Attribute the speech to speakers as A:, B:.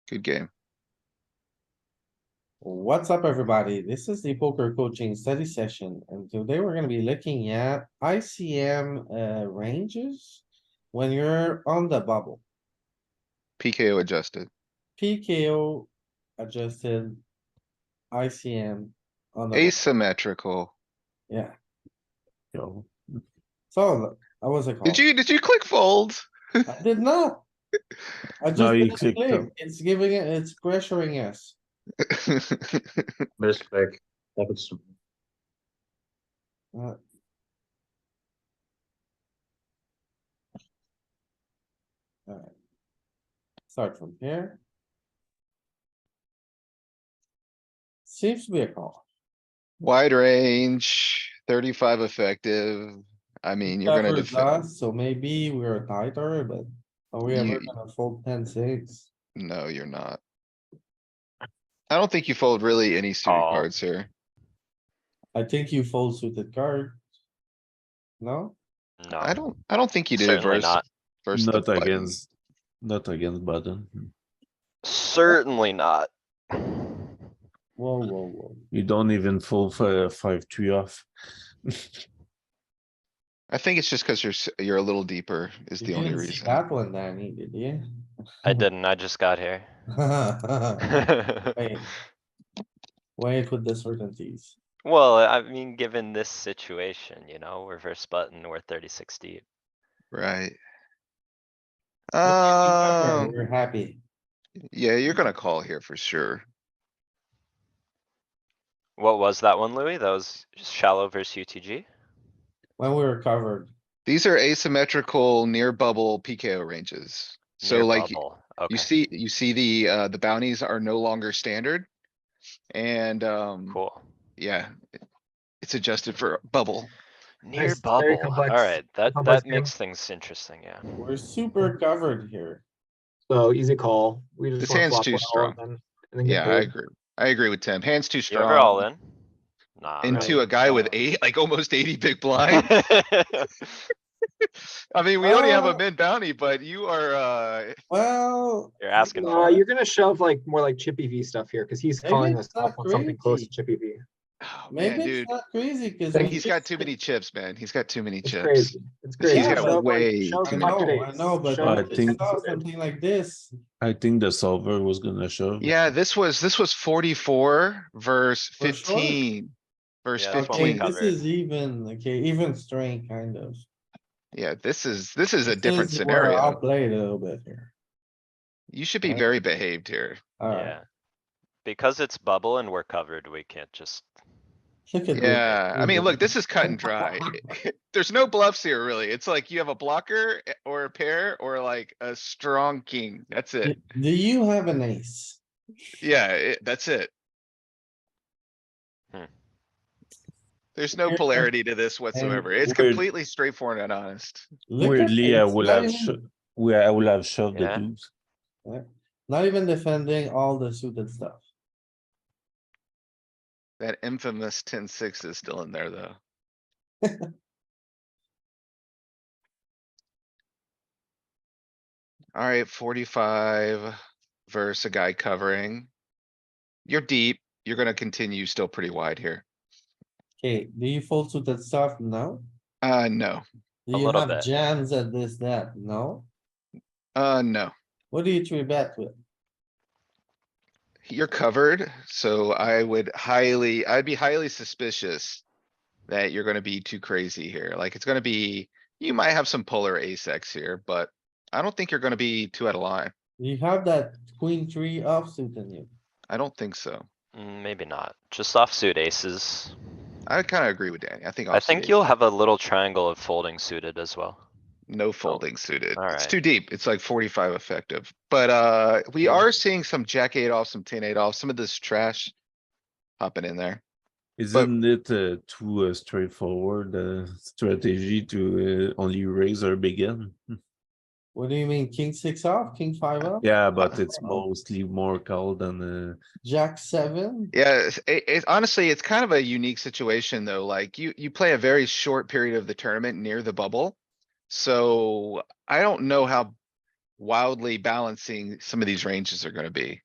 A: Good game.
B: What's up, everybody? This is the poker coaching study session, and today we're gonna be looking at ICM uh ranges. When you're on the bubble,
A: PKO adjusted.
B: PKO adjusted. ICM on the, bubble.
A: Asymmetrical.
B: yeah, so look, I was a call.
A: Did you, did you click fold?
B: I did not. I just,
C: No, you
B: didn't
C: clicked
B: click.
C: them.
B: it's giving it, it's pressuring us.
C: Best back. Happens to me.
B: Uh, Start from here. Seems to be a call.
A: Wide range, thirty-five effective. I mean, you're gonna
B: Covers
A: defend.
B: us, So maybe we're tighter, but are we ever
A: You-
B: gonna fold ten six?
A: No, you're not. I don't think you fold really any suited
C: Oh.
A: cards here.
B: I think you fold suited card. No?
D: No.
A: I don't, I don't think you do
D: Certainly
A: versus,
D: not.
A: versus the
C: Not
A: button.
C: against, not against button.
D: Certainly not.
E: Mm-hmm.
B: Whoa, whoa, whoa.
C: You don't even fold for five three off.
A: I think it's just cuz you're, s- you're a little deeper is
B: You
A: the only
B: didn't see
A: reason.
B: That one, Danny, did you?
D: I didn't, I just got here.
B: Wait. Wait with the certainties.
D: Well, I mean, given this situation, you know, reverse button, we're thirty-six deep.
A: Right. Um,
B: Remember, We're happy.
A: yeah, you're gonna call here for sure.
D: What was that one, Louis? That was shallow versus UTG?
B: When we were covered,
A: These are asymmetrical near bubble PKO ranges. So
D: Near
A: like, y-
D: bubble. Okay,
A: you see, you see the, uh, the bounties are no longer standard. And, um,
D: cool.
A: yeah, it- it's adjusted for bubble.
D: Near
E: Nice, very
D: bubble,
E: complex-
D: alright, that,
E: complex
D: that
E: game.
D: makes things interesting, yeah.
B: we're super covered here.
E: So easy call. We
A: This
E: just wanna
A: hand's
E: flop
A: too
E: well and
A: strong.
E: then- and then get
A: Yeah, I
E: paid.
A: agree. I agree with Tim. Hands too
D: You ever all
A: strong
D: in? Nah.
A: into a
D: right?
A: guy with
D: Uh,
A: eight, like almost eighty big blind. I mean, we only have a
B: Oh.
A: mid bounty, but you are, uh,
B: Well,
D: You're asking
E: Uh,
D: for it.
E: you're gonna shove like more like Chippy V stuff here, cause he's
B: Maybe
E: calling
B: it's
E: us
B: not
E: up on something close
B: crazy.
E: to Chippy V.
A: oh, man,
B: maybe
A: dude,
B: it's not crazy cuz.
E: Thank
A: he's got too many chips, man. He's got too many
E: It's
A: chips.
E: crazy. It's
A: He's
E: crazy.
B: got
E: Shove, like,
A: way
E: shove
A: too
B: I
A: many
E: pocket
B: know, I
E: eights,
B: know, but
E: shove
C: I
B: if I
C: think-
B: saw something like this,
C: I think the solver was gonna shove.
A: Yeah, this was, this was forty-four verse
B: For sure.
A: fifteen. Verse
D: Yeah, that's what we
B: okay,
A: fifteen.
D: covered.
B: this is even, okay, even straight kind of.
A: Yeah, this is, this is a
B: This
A: different
B: is where
A: scenario.
B: I'll play it a little bit here.
A: You should be
B: right?
A: very behaved here.
B: Alright,
D: Yeah. Because it's bubble and we're covered, we can't just,
B: look at this.
A: Yeah, I mean, look, this is cut and dry. There's no bluffs here, really. It's like you have a blocker eh, or a pair or like a strong king. That's it.
B: Do you have an ace?
A: Yeah, it- that's it.
D: Hmm.
A: There's no
B: Here-
A: polarity to this whatsoever. It's
C: weird-
A: completely straightforward and honest.
B: Look at
C: Weirdly, I
B: this,
C: will
B: not
C: have,
B: even-
C: sho- where I will have shoved the
D: Yeah.
C: deuce.
B: Not even defending all the suited stuff.
A: That infamous 10-6 is still in there, though. Alright, forty-five versus a guy covering. You're deep. You're gonna continue still pretty wide here.
B: Okay, do you fold suited stuff? No?
A: Uh, no,
B: Do
D: A
B: you
D: little
B: have
D: bit.
B: jams at this, that? No?
A: uh, no.
B: What do you three bet with?
A: You're covered, so I would highly, I'd be highly suspicious that you're gonna be too crazy here. Like, it's gonna be, you might have some polar ace X here, but I don't think you're gonna be too out of line.
B: You have that queen three offsuit in you.
A: I don't think so.
D: mm, maybe not, just offsuit aces.
A: I kinda agree with Danny. I think.
D: I
A: offsuit
D: think
A: is
D: you'll have a little triangle of folding suited as well. Oh,
A: No folding suited. It's
D: alright.
A: too deep. It's like forty-five effective, but, uh, we are seeing some jack eight off, some ten eight off, some of this trash. Hopping in there.
C: Isn't it uh, too uh, straightforward uh, strategy to uh, only raise or begin?
B: What do you mean? King six off, king five off,
C: Yeah, but it's
B: Uh,
C: mostly more call than uh,
B: jack seven?
A: Yeah, it's- it, it, honestly, it's kind of a unique situation, though. Like, you, you play a very short period of the tournament near the bubble. So I don't know how wildly balancing some of these ranges are gonna be.